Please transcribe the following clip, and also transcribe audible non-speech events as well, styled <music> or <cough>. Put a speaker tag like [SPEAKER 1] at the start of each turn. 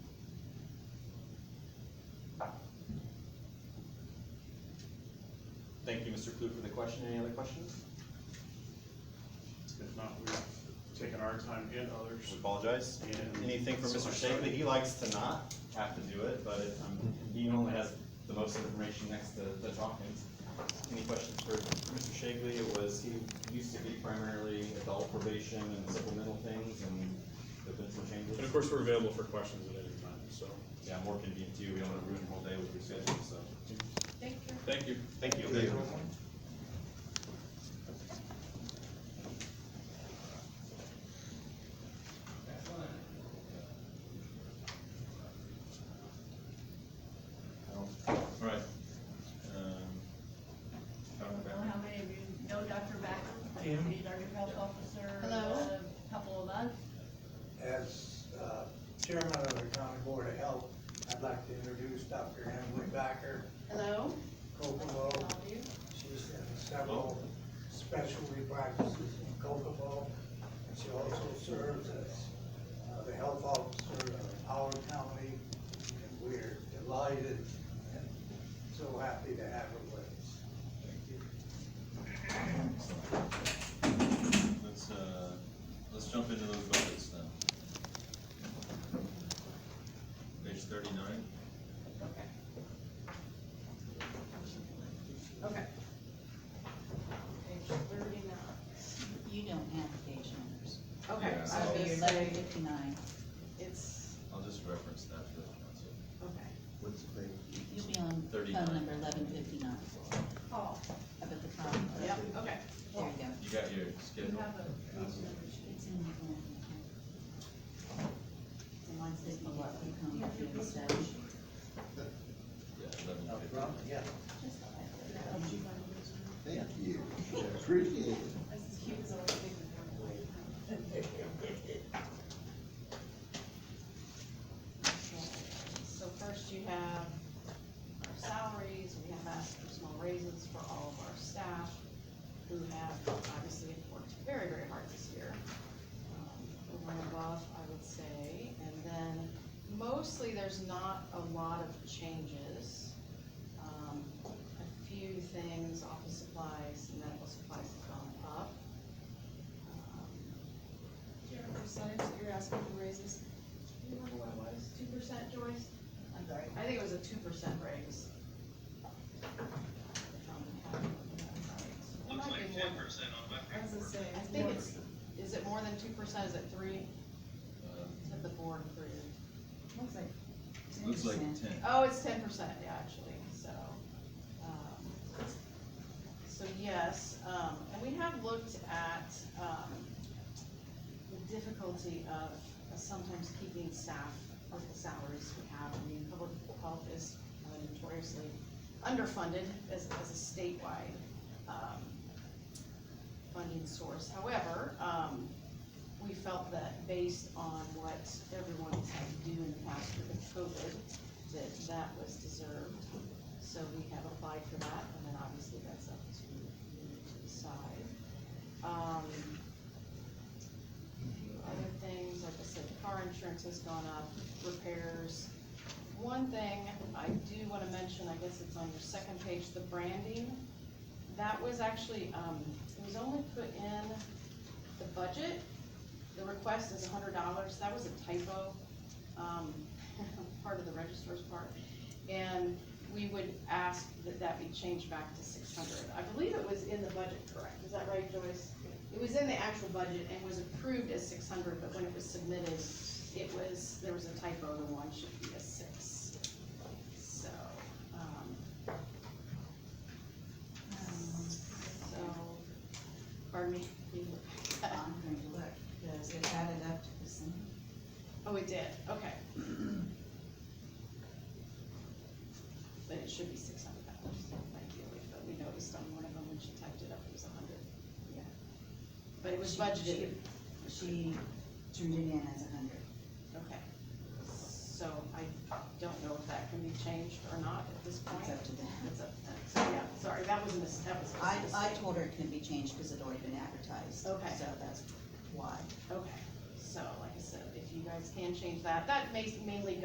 [SPEAKER 1] you, Mr. Klug, for the question. Any other questions?
[SPEAKER 2] If not, we've taken our time and others.
[SPEAKER 1] We apologize.
[SPEAKER 2] And-
[SPEAKER 1] Anything from
[SPEAKER 2] So
[SPEAKER 1] Mr.
[SPEAKER 2] I'm
[SPEAKER 1] Shagley,
[SPEAKER 2] sorry.
[SPEAKER 1] he likes to not have to do it, but it, um, he only has the most information next to the Hawkins. Any questions for Mr. Shagley? It was, he used to be primarily adult probation and supplemental things, and there've been some changes.
[SPEAKER 2] And of course, we're available for questions at any time, so.
[SPEAKER 1] Yeah, more convenient too, we don't want to ruin the whole day with your schedule, so,
[SPEAKER 3] Thank you.
[SPEAKER 2] Thank you.
[SPEAKER 1] thank you. Alright.
[SPEAKER 4] Um,
[SPEAKER 3] Well, how many of you know Dr. Backer? He's our new health officer.
[SPEAKER 5] Hello.
[SPEAKER 3] a Couple of months.
[SPEAKER 6] As uh, chairman of the county board of health, I'd like to introduce Dr. Emily Backer
[SPEAKER 5] Hello?
[SPEAKER 6] Kokomo.
[SPEAKER 3] All of you.
[SPEAKER 6] She's in several specialty practices in Kokomo. And she also serves as uh, the health officer of Howard County. And we're delighted and so happy to have her with us.
[SPEAKER 4] Let's, uh, let's jump into those buckets now. Page thirty-nine,
[SPEAKER 5] Okay. Okay.
[SPEAKER 3] Page thirty-nine.
[SPEAKER 7] You don't have page numbers.
[SPEAKER 5] Okay,
[SPEAKER 4] Yeah.
[SPEAKER 5] I was gonna
[SPEAKER 7] You're
[SPEAKER 5] say,
[SPEAKER 7] eleven fifty-nine.
[SPEAKER 5] it's,
[SPEAKER 4] I'll just reference that for the council.
[SPEAKER 5] okay.
[SPEAKER 7] You'll be on
[SPEAKER 4] Thirty-nine.
[SPEAKER 7] phone number eleven fifty-nine,
[SPEAKER 3] Paul,
[SPEAKER 7] up at the top. There
[SPEAKER 5] Yep, okay.
[SPEAKER 7] you go.
[SPEAKER 4] You got your
[SPEAKER 3] you
[SPEAKER 4] schedule?
[SPEAKER 3] have a page number sheet.
[SPEAKER 7] It's in the form. The ones that you want to come up and stuff.
[SPEAKER 4] Yeah, eleven
[SPEAKER 6] Up
[SPEAKER 4] fifty.
[SPEAKER 6] front, yeah.
[SPEAKER 8] Thank you. Appreciate it.
[SPEAKER 3] This is cute as always.
[SPEAKER 5] So first you have our salaries, we have asked for small raises for all of our staff who have obviously worked very, very hard this year. Um, Over and above, I would say, and then mostly there's not a lot of changes. Um, A few things, office supplies, medical supplies have gone up. Um,
[SPEAKER 3] Do you have a percentage that you're asking for raises? Do you remember what it was? Two percent, Joyce?
[SPEAKER 5] I'm sorry, I think it was a two percent raise. Looks like ten percent on my.
[SPEAKER 3] As I say.
[SPEAKER 5] I think it's, is it more than two percent, is it three,
[SPEAKER 4] Uh,
[SPEAKER 5] is it the board three?
[SPEAKER 3] Looks like
[SPEAKER 4] Looks like
[SPEAKER 7] 10%.
[SPEAKER 4] ten.
[SPEAKER 5] Oh, it's ten percent, yeah, actually, so, um, so yes, um, and we have looked at, um, the difficulty of sometimes keeping staff with the salaries we have, I mean, public health is uh, notoriously underfunded as, as a statewide, um, funding source, however, um, we felt that based on what everyone has had to do in the past with the COVID, that that was deserved. So we have applied for that, and then obviously that's up to you to decide. Um, Other things, like I said, car insurance has gone up, repairs. One thing I do wanna mention, I guess it's on your second page, the branding. That was actually, um, it was only put in the budget, the request is hundred dollars, that was a typo, um, <laughs> part of the registrar's part. And we would ask that that be changed back to six hundred. I believe it was in the budget, correct? Is that right, Joyce? It was in the actual budget and was approved as six hundred, but when it was submitted, it was, there was a typo, the one should be a six. So, um,
[SPEAKER 7] Um,
[SPEAKER 5] so, pardon me,
[SPEAKER 7] <laughs>
[SPEAKER 5] you look.
[SPEAKER 7] I'm going to look, does it add it up to the same?
[SPEAKER 5] Oh, it did,
[SPEAKER 7] <clears throat>
[SPEAKER 5] okay. But it should be six hundred dollars, like you, but we noticed on one of them when she typed it up, it was a hundred.
[SPEAKER 7] Yeah.
[SPEAKER 5] But it was
[SPEAKER 7] She-
[SPEAKER 5] budgeted,
[SPEAKER 7] she- She turned it in as a hundred.
[SPEAKER 5] okay. So I don't know if that can be changed or not at this point.
[SPEAKER 7] It's up to them.
[SPEAKER 5] It's up to them. So, yeah, sorry, that was a mis, that was. a
[SPEAKER 7] I, I
[SPEAKER 5] mistake.
[SPEAKER 7] told her it couldn't be changed because it'd already been advertised.
[SPEAKER 5] Okay.
[SPEAKER 7] So that's why.
[SPEAKER 5] Okay, so like I said, if you guys can change that, that may mainly